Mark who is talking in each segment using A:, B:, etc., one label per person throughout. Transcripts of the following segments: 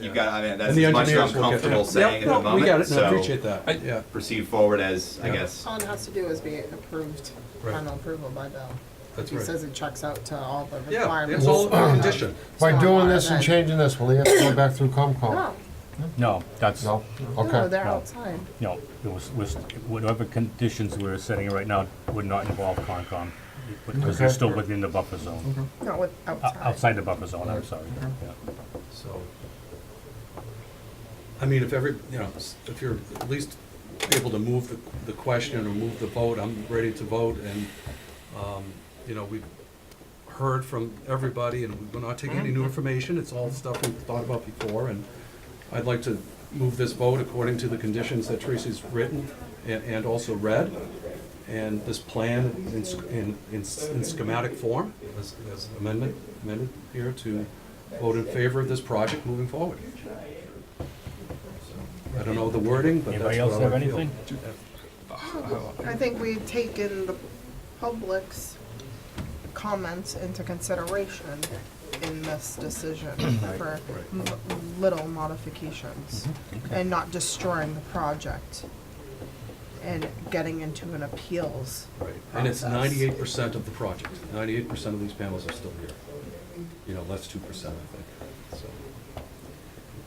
A: you've got, I mean, that's
B: And the
A: as much as I'm
B: engineers will get that.
A: comfortable saying at the
B: Yep, no, We got
A: moment,
B: it, and I appreciate
A: so
C: I-
B: that, yeah,
A: proceed forward as, I
B: Yeah.
A: guess,
D: All it has to do is be approved,
B: Right.
D: final approval by Bill.
B: that's
D: He says
B: right.
D: it checks out to all the
B: Yeah,
D: requirements.
B: it's all
D: for the
B: conditioned.
E: By doing this
D: stormwater,
E: and
D: then-
E: changing this, will he have to go back through
D: No,
E: Comcom?
F: No, that's,
E: No?
F: no,
D: no,
E: Okay.
D: they're
F: No.
D: outside.
F: it was, was, whatever conditions we're setting right now would not involve Concom, because they're
E: Okay.
F: still within the buffer zone,
D: No, with,
F: O-
D: outside.
F: outside the buffer zone, I'm sorry. yeah.
B: So, I mean, if every, you know, s- if you're at least able to move the- the question or move the vote, I'm ready to vote, and, um, you know, we've heard from everybody, and we're not taking any
F: Mm-hmm.
B: new information, it's all stuff we've thought about before, and I'd like to move this vote according to the conditions that Tracy's written and, and also read, and this plan in, s- in, in s- in schematic form, as as amendment, amended here to vote in favor of this project moving forward. I don't know the wording, but that's what I
F: Anybody else have
B: would feel.
F: anything?
D: I think we've taken the public's comments into consideration in this decision for m- little modifications
E: Mm-hmm.
D: and not destroying the project and getting into an appeals.
B: Right, and it's
D: process.
B: ninety-eight percent of the project, ninety-eight percent of these panels are still here. You know, less two percent, I think, so.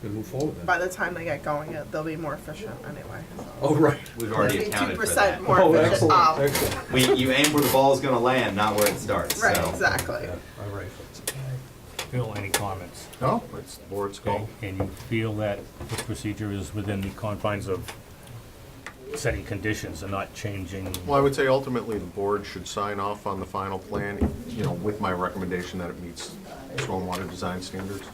B: We're gonna move forward
D: By
B: then.
D: the time they get going, it- they'll be more efficient anyway. so.
B: Oh, right.
A: we've already
D: It'll be
A: accounted for
D: 2%
A: that.
D: more
B: Oh,
D: efficient.
B: excellent,
D: Um,
B: excellent.
A: We, you aim where the ball's gonna land, not where it starts, so.
D: Right, exactly.
B: Yeah, all right.
F: Phil, any comments?
E: No, it's board's
F: Okay, and you feel that the procedure is within the confines of setting conditions and not changing?
G: Well, I would say ultimately, the board should sign off on the final plan, you know, with my recommendation that it meets stormwater design standards.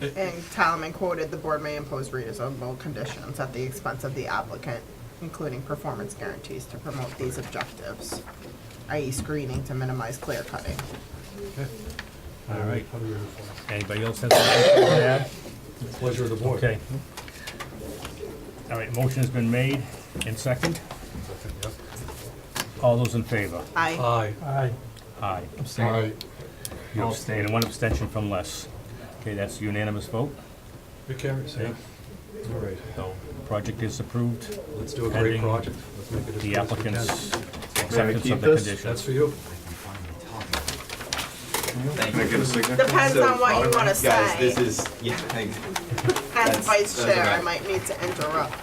D: And Talaman quoted, "The board may impose reasonable conditions at the expense of the applicant, including performance guarantees to promote these objectives, i.e. screening to minimize clear cutting."
F: All right, anybody else has anything to add?
B: Pleasure of the board.
F: Okay. All right, motion's been made and second. All those in favor?
A: Uh,
D: I,
B: Aye.
C: Aye.
F: Aye.
E: Aye.
F: You
G: Oh.
F: abstain, and one abstention from Les. Okay, that's unanimous vote,
B: It carries, yeah. All right,
F: so project is approved,
B: let's do a great
F: Pending
B: project. Let's make it as good as
F: the
B: we can.
F: applicant's
G: May I
F: acceptance
G: keep
F: of the
G: this?
B: That's
F: conditions.
B: for you.
A: Thank
G: Can I
A: you.
G: get a signature?
D: depends
A: So,
D: on what you wanna
A: Guys,
D: say.
A: this is, yeah, thanks.
D: As
A: that's-
D: vice
A: that's
D: chair, I
A: alright.
D: might need to interrupt.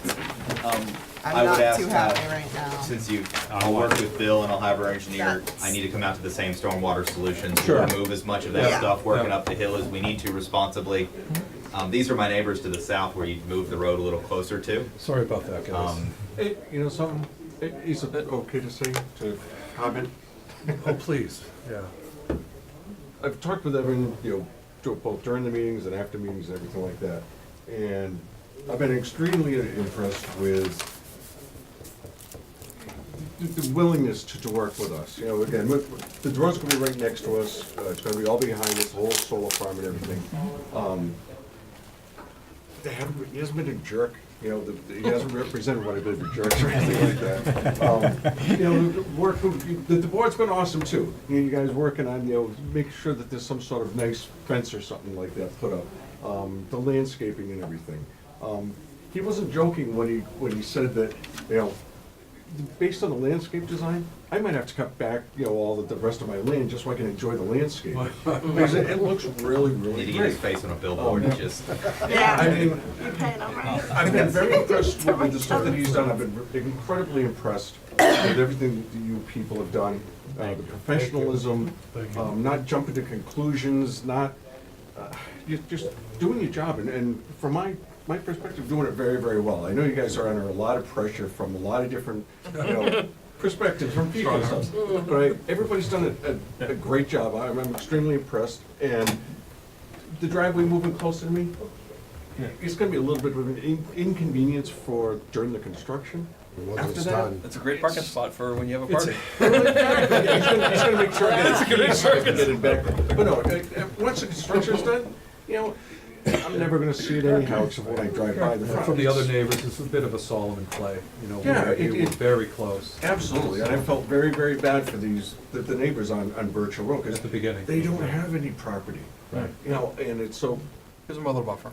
A: I
D: I'm
A: would
D: not
A: ask,
D: too
A: uh,
D: happy right now.
A: Since you, I'll work with Bill and I'll have our engineer,
D: That's-
A: I need to come out to the same stormwater solutions.
B: Sure.
A: Remove as much of
D: Yeah.
A: that stuff, working
B: Yeah.
A: up the hill as we need to responsibly. Um, these are my neighbors to the south where you move the road a little closer to.
B: Sorry about that, guys.
A: Um,
H: Hey, you know something? It is a bit okay to say, to comment.
B: Oh, please, yeah.
H: I've talked with Evan, you know, dur- both during the meetings and after meetings and everything like that. And I've been extremely impressed with the- the willingness to, to work with us. You know, again, with- the drone's gonna be right next to us, uh, it's gonna be all behind us, the whole solar farm and everything. Um, They haven't, been- he hasn't been a jerk, you know, the- he hasn't represented what a bit of a jerk or anything like that. Um, You know, the work, the, the board's been awesome too. You know, you guys working on, you know, make sure that there's some sort of nice fence or something like that put up. Um, The landscaping and everything. Um, He wasn't joking when he, when he said that, you know, based on the landscape design, I might have to cut back, you know, all the, the rest of my land just so I can enjoy the landscape. Because it, it looks really,
A: Need to
H: really
A: get his
H: great.
A: face on a
B: Oh,
A: billboard and just,
H: I
D: Yeah,
H: mean,
D: you paying all
A: Oh.
D: right.
H: I've been very impressed with with the stuff that he's done, I've been incredibly impressed with everything that you people have done. Uh, the professionalism, um, not jumping to conclusions, not, uh, ju- just doing your job, and, and from my, my perspective, doing it very, very well. I know you guys are under a lot of pressure from a lot of different, you know, perspectives from people and stuff. But I, everybody's done a, a, a great job, I'm I'm extremely impressed, and the driveway moving closer to me, it's gonna be a little bit of an in- inconvenience for during the construction.
E: Once
H: After
E: it's
H: that,
E: done,
I: It's a great parking spot for when you have a
B: It's-
I: party.
H: He's gonna, he's gonna make sure that it's getting back. But no, uh, uh, once the construction's done, you know, I'm never gonna see it anyhow except when I drive by the front.
B: From the other neighbors, it's a bit of a Solomon play, you know,
H: Yeah,
B: we-
H: it-
B: we were
H: it-
B: very close at
H: Absolutely, and I felt very, very bad for these, the, the neighbors on, on Birchill Road,
B: the
H: because
B: beginning.
H: they don't have any property.
B: Right.
H: You know, and it's so,
I: Here's a mother buffer.